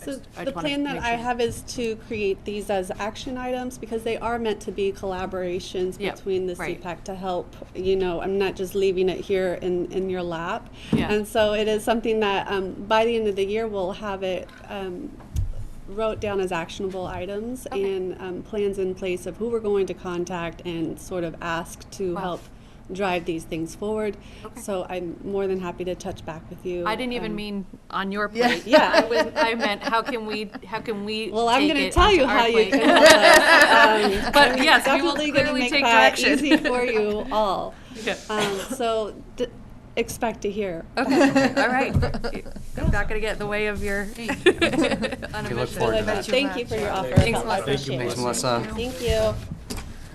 So just- I the just wanna plan that make I sure. have is to create these as action items because they are meant to be collaborations Yeah, between the right. CPAC to help, you know, I'm not just leaving it here in, in your lap. Yeah. And so it is something that, um, by the end of the year, we'll have it, um, wrote down as actionable items Okay. and, um, plans in place of who we're going to contact and sort of ask to Wow. help drive these things forward. Okay. So I'm more than happy to touch back with you. I didn't even um, mean on your plate. Yeah. I was, I meant, how can we, how can we? Well, I'm take going to it tell you onto our how you plate? can help us. Um, But I'm yes, we will definitely gonna clearly make take that direction. Easy for you all. Yeah. Um, so d- expect to hear. Okay, all right. I'm not gonna get in the way of your. on a We look mission. forward But to that. Thank you for your offer. Thanks a Help. lot. I Thank you, appreciate it. Melissa. Melissa. Thank you.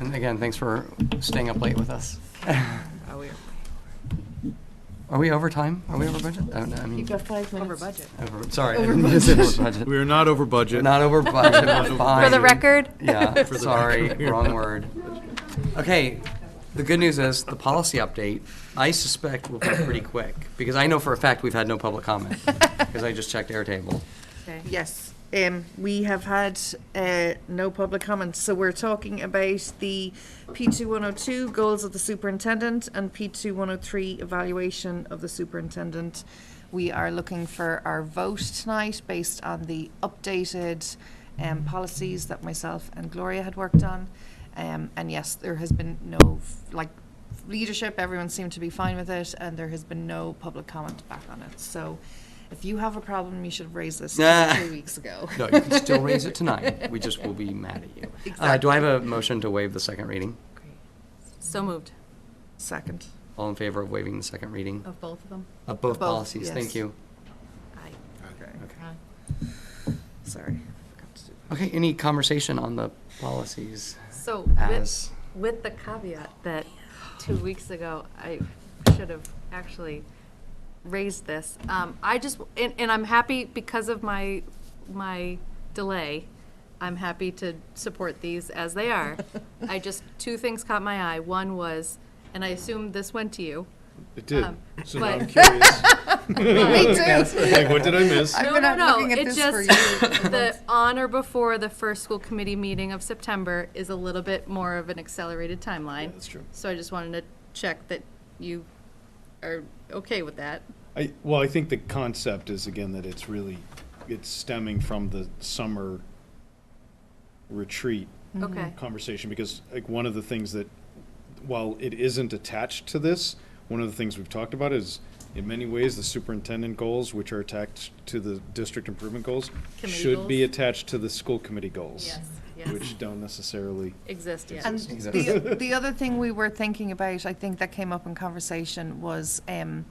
And again, thanks for staying up late with us. Oh, we're Are we over time? Are we over budget? I don't know, I mean, five Over budget. over, sorry, I didn't mean to say over budget. We are not over budget. Not over budget, we're fine. For the record? Yeah, For the sorry, record. wrong word. Okay, the good news is, the policy update, I suspect will be pretty quick, because I know for a fact we've had no public comment, because I just checked Airtable. Okay. Yes, um, we have had, uh, no public comments, so we're talking about the P two one oh two goals of the superintendent and P two one oh three evaluation of the superintendent. We are looking for our vote tonight based on the updated, um, policies that myself and Gloria had worked on. Um, and yes, there has been no, f- like, leadership, everyone seemed to be fine with it, and there has been no public comment back on it. So if you have a problem, you should have raised this Nah. two weeks ago. No, you can still raise it tonight, we just will be mad at you. Uh, do I have a motion to waive the second reading? So moved. Second. All in favor of waiving the second reading? Of both of them? Of both Both, policies, thank yes. you. Aye. Okay, Okay. sorry. Forgot to do that. Okay, any conversation on the policies So as, with, with the caveat that two Hmm. weeks ago, I should have actually raised this. Um, I just, and, and I'm happy because of my, my delay, I'm happy to support these as they are. I just, two things caught my eye. One was, and I assume this went to you. It did. Um, So now but- I'm curious. Me too. Like, what did I miss? I've No, been no, out no. looking at It this for just, you for the months. on or before the first school committee meeting of September is a little bit more of an accelerated timeline. that's true. So I just wanted to check that you are okay with that. I, well, I think the concept is again that it's really, it's stemming from the summer retreat Okay. conversation because like one of the things that, while it isn't attached to this, one of the things we've talked about is in many ways the superintendent goals, which are attached to the district improvement goals, Committee should be goals. attached to the school committee goals. Yes, yes. Which don't necessarily. Exist, yeah. And the, the other thing we were thinking about, I think that came up in conversation, was um,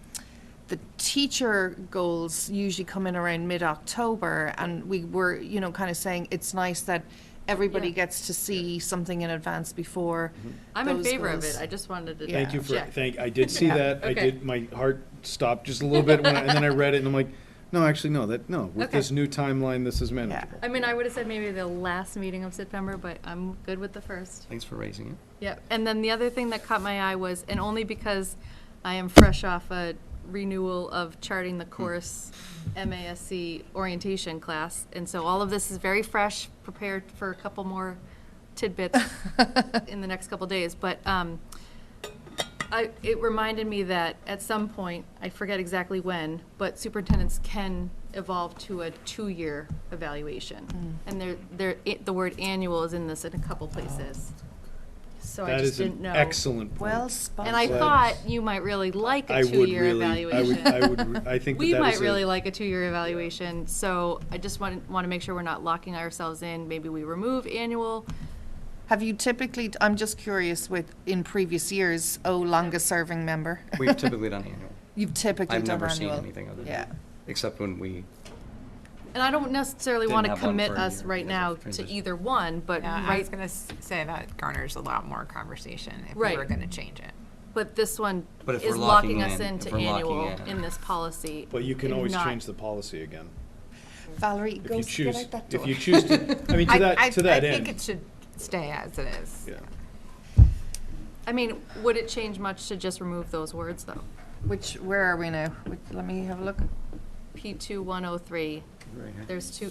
the teacher goals usually come in around mid-October, and we were, you know, kind of saying it's nice that everybody Yeah. gets to see something in advance before. Mm-hmm. I'm in those favor of goals. it. I just wanted to. Thank you for, check. thank, I did see that, I Okay. did, my heart stopped just a little bit, when I- and then I read it, and I'm like, no, actually, no, that, no, with Okay. this new timeline, this is manageable. I mean, I would have said maybe the last meeting of September, but I'm good with the first. thanks for raising it. Yep. And then the other thing that caught my eye was, and only because I am fresh off a renewal of charting the course MASC orientation class. And so all of this is very fresh, prepared for a couple more tidbits in the next couple days. But um, I, it reminded me that at some point, I forget exactly when, but superintendents can evolve to a two-year evaluation. And there, there, it- the word annual is in this in a couple places. So Oh, I That just is didn't an know. excellent point. Well spotted. And I That thought is- you might really like I a would two-year really- I would- evaluation. I would, re- I think that We that is might a- really like a two-year evaluation, so I just want, want to make sure we're not locking ourselves in. Maybe we remove annual. Have you typically, I'm just curious with, in previous years, oh, longest-serving member? We've typically done annual. You've typically I've done never seen annual. anything other than Yeah. that, except when we, And I don't necessarily Didn't want to have one commit for a us year right because now of to transition. either one, but Yeah, I right, was gonna s- say that garners a lot more conversation if we Right. were gonna change it. but this one But if is we're locking locking us in- into if we're locking annual in. in this policy. But you can and always not- change the policy again, Valerie, if go you s- get choose, out that door. if you choose to, I mean, I- to I- that, to that I think it end. should stay as it is. Yeah. I mean, would it change much to just remove those words, though? Which, where are we now? Which- Let me have a look. P two one oh three, there's two,